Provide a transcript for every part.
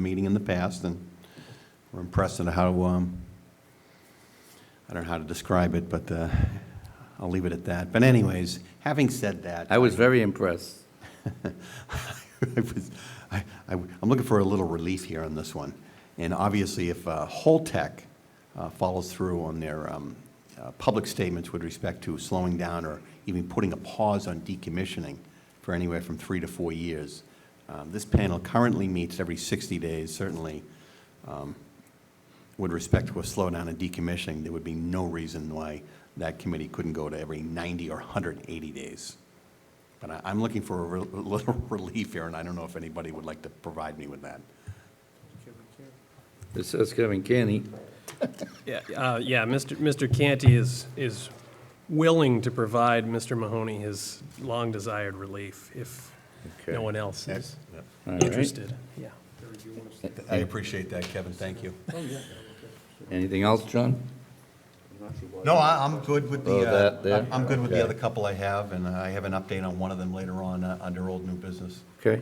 meeting in the past, and we're impressed at how, um, I don't know how to describe it, but uh, I'll leave it at that. But anyways, having said that, I was very impressed. I was- I- I- I'm looking for a little relief here on this one. And obviously, if uh, Holtec uh, follows through on their um, uh, public statements with respect to slowing down or even putting a pause on decommissioning for anywhere from three to four years, um, this panel currently meets every 60 days, certainly um, with respect to a slowdown in decommissioning, there would be no reason why that committee couldn't go to every 90 or 180 days. But I- I'm looking for a re- a little relief here, and I don't know if anybody would like to provide me with that. This is Kevin Kenny. Yeah, uh, yeah, Mr. Mr. Canty is, is willing to provide Mr. Mahoney his long-desired relief if Okay. no one else is All right. interested. Yeah. I appreciate that, Kevin, thank you. Anything else, John? No, I- I'm good with Oh, the, that uh, there? I'm I'm good with the Okay. other couple I have, and I have an update on one of them later on uh, under old new business. Okay.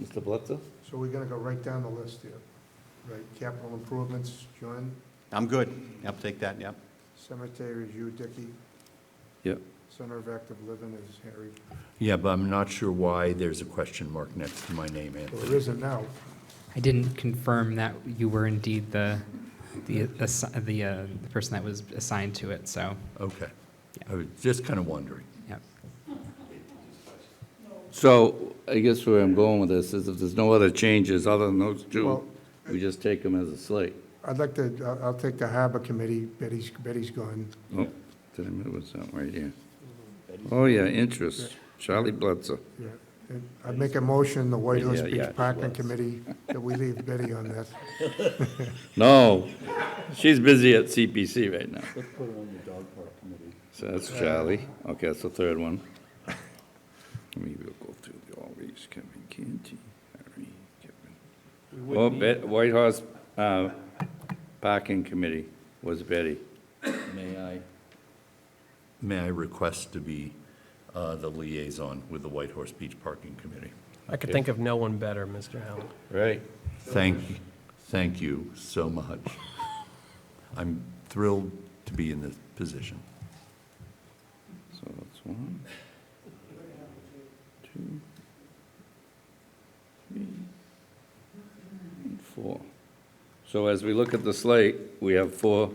Mr. Blitzer? So we're gonna go right down the list here, right, capital improvements, John, I'm good, yep, take that, yep. cemetery is you, Dicky, Yep. center of active living is Harry. Yeah, but I'm not sure why there's a question mark next to my name, Well, there Anthony. isn't now, I didn't confirm that you were indeed the, the, assi- the, uh, the person that was assigned to it, so, Okay. I was just kind of wondering. yeah. So I guess where I'm going with this is if there's no other changes other than those two, Well- we just take them as a slate. I'd like to, I'll, I'll take the harbor committee, Betty's, Betty's gone. Oh, did I move something right here? Oh, yeah, interest. Charlie Blitzer. Yeah. And I'd make a motion, the White Horse Yeah, yeah, Beach Parking was. Committee, that we leave Betty on that. No, she's busy at CPC right now. Let's put her on the dog park committee. So that's Charlie. Okay, that's the third one. Let me we'll go through the- all these, Kevin Canty, Harry, Kevin. Oh, Bet, White Horse, uh, Parking Committee was Betty. May I? May I request to be uh, the liaison with the White Horse Beach Parking Committee? I could think of no one better, Mr. Howland. Right. Thank, thank you so much. I'm thrilled to be in this position. So that's one, two, three, and four. So as we look at the slate, we have four,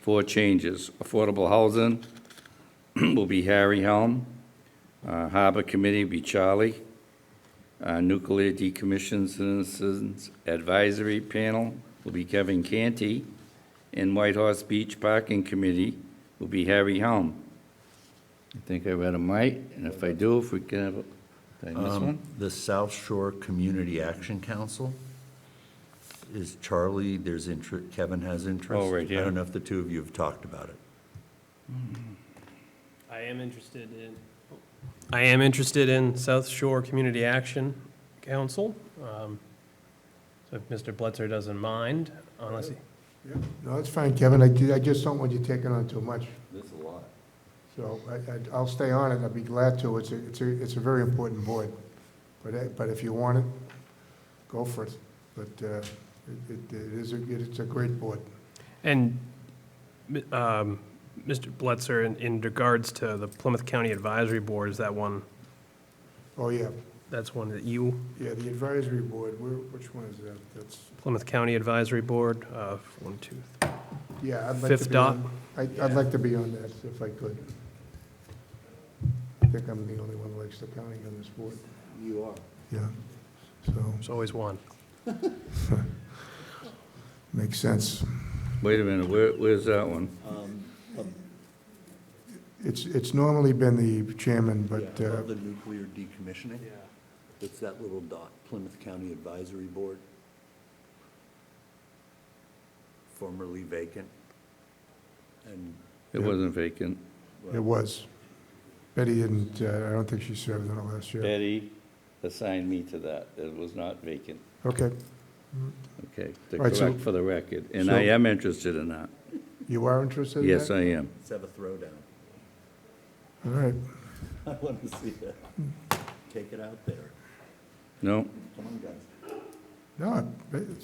four changes. Affordable housing will be Harry Helm. Uh, Harbor Committee will be Charlie. Uh, Nuclear Decommission Citizens Advisory Panel will be Kevin Canty. And White Horse Beach Parking Committee will be Harry Helm. I think I read them right, and if I do, if we can have, a- did I miss Um, one? The South Shore Community Action Council is Charlie, there's interest, Kevin has interest. Oh, right, yeah. I don't know if the two of you have talked about it. I am interested in. I am interested in South Shore Community Action Council. Um, So if Mr. Blitzer doesn't mind, unless he, No, that's fine, Kevin, I, ju- I just don't want you taking on too much, There's a lot. so I, I- I'll stay on it, I'd be glad to, it's a, it's a, it's a very important board. But, I- but if you want it, go for it, but, uh, it, it it is, a- it's a great board. And um, Mr. Blitzer, in- in regards to the Plymouth County Advisory Board, is that one, Oh, yeah, that's one that you, yeah, the advisory board, where, which one is that? That's, Plymouth County Advisory Board, uh, one, two, three. yeah, I'd like to Fifth be on. I'd, I'd like to be on that if I could. I think I'm the only one who likes the county on this board. You are. Yeah, so, there's always one. makes sense. Wait a minute, where, where's that one? It's, it's normally been the chairman, but, Yeah, uh, Of the nuclear decommissioning? It's that little dot, Plymouth County Advisory Board, formerly vacant. And It wasn't vacant. uh, it was. Betty didn't, uh, I don't think she served on it last year. Betty assigned me to that, it was not vacant, Okay, okay, to All right, so- correct for the record, and I so- am interested in that, you are interested in that? yes, I am. let's have a throwdown. All right, I want to see that. Take it out there. No? Come on, guys. no, it-